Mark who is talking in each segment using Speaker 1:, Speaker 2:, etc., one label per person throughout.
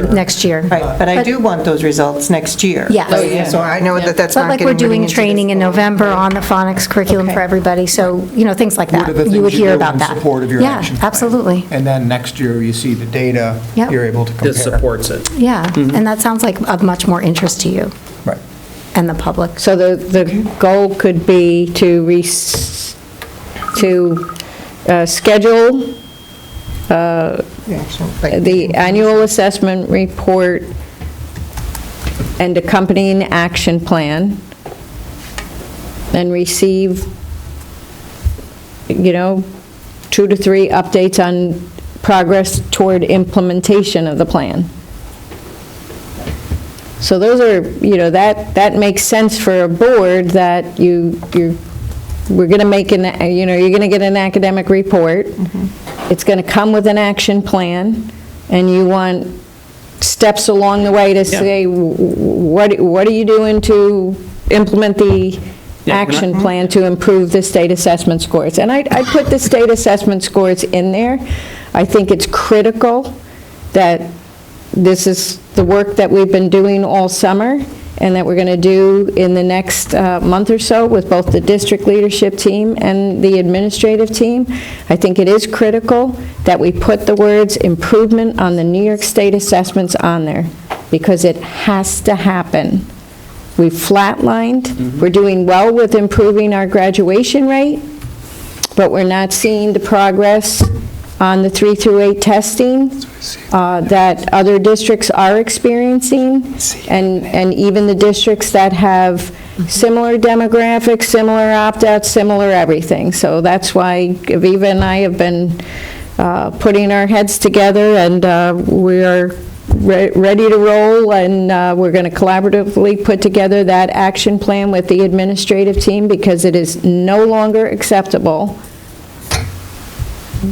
Speaker 1: next year.
Speaker 2: Right, but I do want those results next year.
Speaker 1: Yes. Oh,
Speaker 3: yeah.
Speaker 2: So I know that that's
Speaker 1: But
Speaker 2: not
Speaker 1: like
Speaker 2: getting
Speaker 1: we're
Speaker 2: running
Speaker 1: doing
Speaker 2: into
Speaker 1: training
Speaker 2: this.
Speaker 1: in November on the phonics curriculum for
Speaker 2: Okay.
Speaker 1: everybody, so, you know, things like
Speaker 4: What are the
Speaker 1: that. You would
Speaker 4: things you
Speaker 1: hear
Speaker 4: do
Speaker 1: about
Speaker 4: in
Speaker 1: that.
Speaker 4: support of your action
Speaker 1: Yeah,
Speaker 4: plan?
Speaker 1: absolutely.
Speaker 4: And then next year, you see the data,
Speaker 1: Yep.
Speaker 4: you're able to compare.
Speaker 5: This supports it.
Speaker 1: Yeah,
Speaker 6: Mm-hmm.
Speaker 1: and that sounds like of much more interest to you
Speaker 4: Right.
Speaker 1: and the public.
Speaker 7: So the, the goal could be to re, to uh, schedule
Speaker 2: The action, like-
Speaker 7: the annual assessment report and accompanying action plan, and receive, you know, two to three updates on progress toward implementation of the plan. So those are, you know, that, that makes sense for a board that you, you, we're going to make an, you know, you're going to get an academic report. It's going to come with an action plan, and you want steps along the way to say, w- w- what, what are you doing to implement the
Speaker 5: Yeah, we're not-
Speaker 7: action plan to improve the state assessment scores? And I, I put the state assessment scores in there. I think it's critical that this is the work that we've been doing all summer and that we're going to do in the next uh, month or so with both the district leadership team and the administrative team. I think it is critical that we put the words improvement on the New York State assessments on there because it has to happen. We flatlined, we're doing well with improving our graduation rate, but we're not seeing the progress on the 3 through 8 testing uh, that other districts are experiencing, and, and even the districts that have similar demographics, similar opt-outs, similar everything. So that's why Aviva and I have been uh, putting our heads together, and uh, we are re- ready to roll, and uh, we're going to collaboratively put together that action plan with the administrative team, because it is no longer acceptable,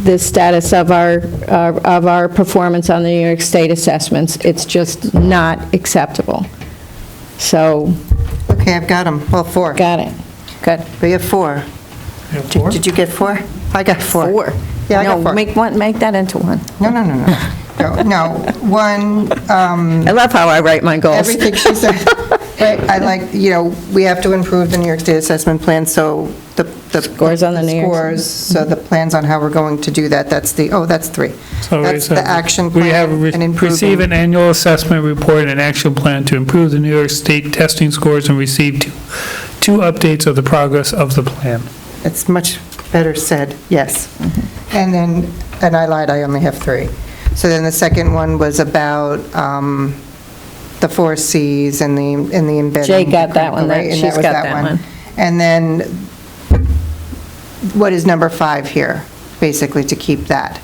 Speaker 7: the status of our, uh, of our performance on the New York State assessments. It's just not acceptable. So,
Speaker 2: Okay, I've got them, well, four.
Speaker 7: got it. Good.
Speaker 2: We have four. Did did you get four? I got four. Yeah, I got
Speaker 7: No,
Speaker 2: four.
Speaker 7: make one, make that into one.
Speaker 2: No, no, no, no. no. No, one, um,
Speaker 7: I love how I write my goals.
Speaker 2: everything she said, Right, I like, you know, we have to improve the New York State Assessment Plan, so the... the-
Speaker 7: Scores on the New York-
Speaker 2: Scores, so the plans on how we're going to do that, that's the, oh, that's three.
Speaker 6: So we
Speaker 2: That's the
Speaker 6: said
Speaker 2: action
Speaker 6: We have
Speaker 2: plan
Speaker 6: re-
Speaker 2: and improving.
Speaker 6: receive an annual assessment report and action plan to improve the New York State testing scores and receive two, two updates of the progress of the plan.
Speaker 2: It's much better said, yes.
Speaker 7: Mm-hmm.
Speaker 2: And then, and I lied, I only have three. So then the second one was about um, the four Cs and the, and the embedding.
Speaker 7: Jay got that one, that-
Speaker 2: Right, and
Speaker 7: she's
Speaker 2: was
Speaker 7: got that one.
Speaker 2: And then, what is number five here, basically, to keep that,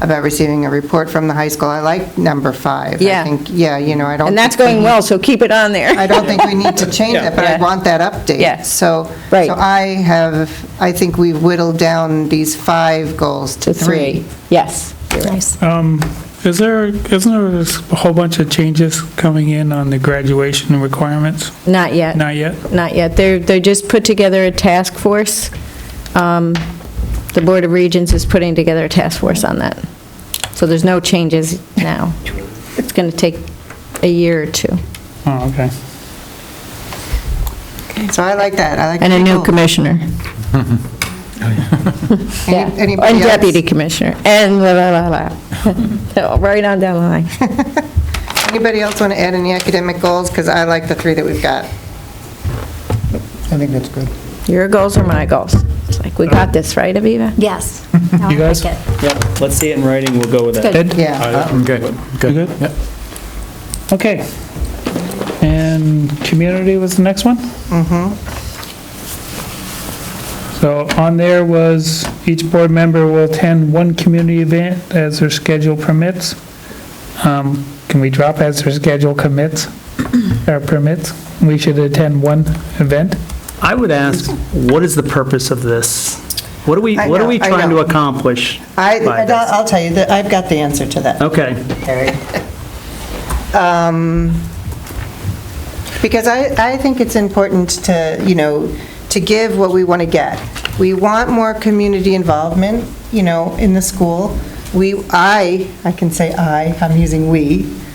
Speaker 2: about receiving a report from the high school? I like number five. I
Speaker 7: Yeah.
Speaker 2: think- Yeah, you know, I don't.
Speaker 7: And that's
Speaker 2: think we
Speaker 7: going
Speaker 2: need-
Speaker 7: well, so keep it on there.
Speaker 2: I don't think we need to change that, but I
Speaker 7: Yeah.
Speaker 2: want that update.
Speaker 7: Yeah.
Speaker 2: So,
Speaker 7: Right.
Speaker 2: so I have, I think we whittled down these five goals to three.
Speaker 7: Yes.
Speaker 1: Nice.
Speaker 6: Um, Is there, isn't there a whole bunch of changes coming in on the graduation requirements?
Speaker 7: Not yet.
Speaker 6: Not yet?
Speaker 7: Not yet. They're, they just put together a task force. Um, The Board of Regents is putting together a task force on that. So there's no changes now. It's going to take a year or two.
Speaker 6: Oh, okay.
Speaker 2: So I like that, I like.
Speaker 7: And a new
Speaker 2: people.
Speaker 7: commissioner. Yeah.
Speaker 2: Any- Anybody
Speaker 7: And
Speaker 2: else?
Speaker 7: deputy commissioner, and la, la, la, la. Right on down the line.
Speaker 2: Anybody else want to add any academic goals? Because I like the three that we've got.
Speaker 4: I think that's good.
Speaker 7: Your goals are my goals. It's like, we got this, right, Aviva?
Speaker 1: Yes. No, I
Speaker 6: You guys?
Speaker 1: like it.
Speaker 5: Yep, let's see it in writing, we'll go with that.
Speaker 6: Ed?
Speaker 2: Yeah.
Speaker 4: I'm good.
Speaker 6: You good?
Speaker 4: Yep.
Speaker 6: Okay. And community was the next one? Mm-hmm. So on there was, each board member will attend one community event as their schedule permits. Um, Can we drop as their schedule commits, or permits? We should attend one event?
Speaker 5: I would ask, what is the purpose of this? What are we,
Speaker 2: I
Speaker 5: what are
Speaker 2: know,
Speaker 5: we
Speaker 2: I
Speaker 5: trying to
Speaker 2: know.
Speaker 5: accomplish?
Speaker 2: I, uh,
Speaker 5: by
Speaker 2: I'll I'll tell you, that I've got the answer to that.
Speaker 5: this? Okay.
Speaker 2: Carrie. Um, Because I, I think it's important to, you know, to give what we want to get. We want more community involvement, you know, in the school. We, I, I can say I, I'm using we,